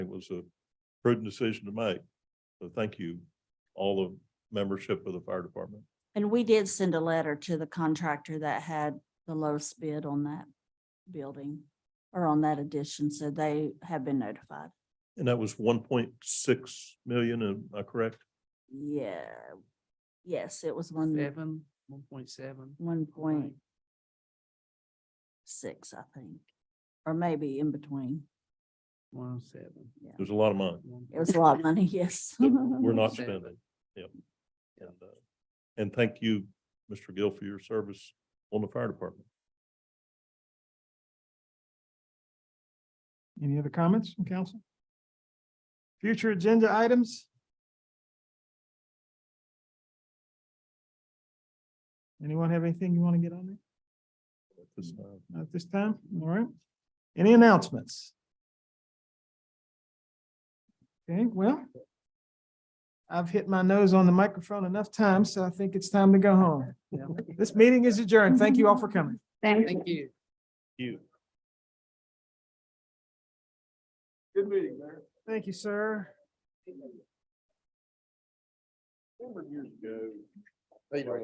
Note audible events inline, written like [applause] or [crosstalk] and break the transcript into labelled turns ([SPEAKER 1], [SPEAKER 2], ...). [SPEAKER 1] It was a prudent decision to make. So thank you, all the membership of the fire department.
[SPEAKER 2] And we did send a letter to the contractor that had the lowest bid on that building or on that addition, so they have been notified.
[SPEAKER 1] And that was one point six million, am I correct?
[SPEAKER 2] Yeah, yes, it was one,
[SPEAKER 3] Seven, one point seven.
[SPEAKER 2] one point six, I think, or maybe in between.
[SPEAKER 3] One seven.
[SPEAKER 1] There's a lot of money
[SPEAKER 2] It was a lot of money, [laughs] yes.
[SPEAKER 1] that we're not
[SPEAKER 3] Sure.
[SPEAKER 1] spending. Yep. And, uh, and thank you, Mr. Gill, for your service on the fire department.
[SPEAKER 4] Any other comments from council? Future agenda items? Anyone have anything you want to get on there?
[SPEAKER 1] at this time.
[SPEAKER 4] Not at this time? All right. Any announcements? Okay, well, I've hit my nose on the microphone enough times, so I think it's time to go home.
[SPEAKER 3] Yeah.
[SPEAKER 4] This meeting is adjourned. Thank you all for coming.
[SPEAKER 3] Thank you.
[SPEAKER 1] You.
[SPEAKER 4] Good meeting, Mayor. Thank you, sir.
[SPEAKER 1] Remember years ago,